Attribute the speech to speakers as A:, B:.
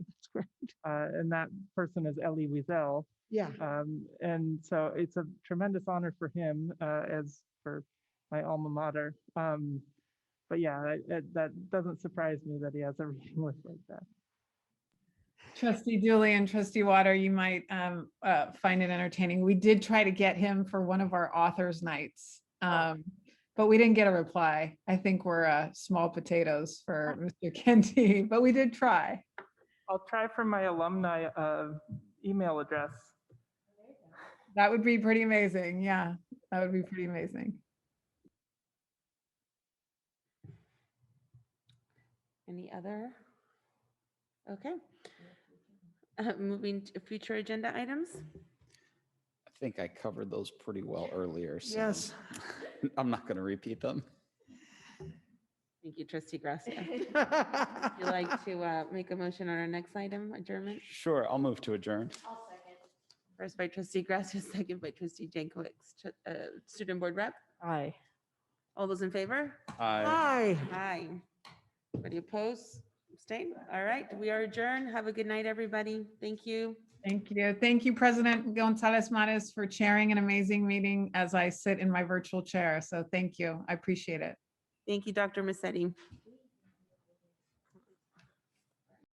A: Uh, and that person is Elie Wiesel.
B: Yeah,
A: Um, and so it's a tremendous honor for him, uh, as for my alma mater. Um, but yeah, I- I- that doesn't surprise me that he has a reading list like that.
C: Trustee Dooley and trustee Water, you might um, uh, find it entertaining. We did try to get him for one of our authors' nights. um, But we didn't get a reply. I think we're uh, small potatoes for Mr. Kenty, but we did try.
A: I'll try for my alumni, uh, email address.
C: That would be pretty amazing. Yeah, that would be pretty amazing.
D: Any other? Okay. Uh, Moving to future agenda items.
E: I think I covered those pretty well earlier, so.
B: Yes.
E: I'm not going to repeat them.
D: Thank you, trustee Gracia. Would you like to uh, make a motion on our next item, adjournment?
E: Sure, I'll move to adjourn.
D: First by trustee Gracia, second by trustee Jankowicz. Tr- uh, Student Board Rep,
F: Aye.
D: all those in favor?
E: Aye.
B: Hi.
D: Aye. Any opposed? Abstain? All right, we are adjourned. Have a good night, everybody. Thank you.
C: Thank you. Thank you, President Gonzalez Mares, for chairing an amazing meeting as I sit in my virtual chair. So thank you. I appreciate it.
D: Thank you, Dr. Massetti.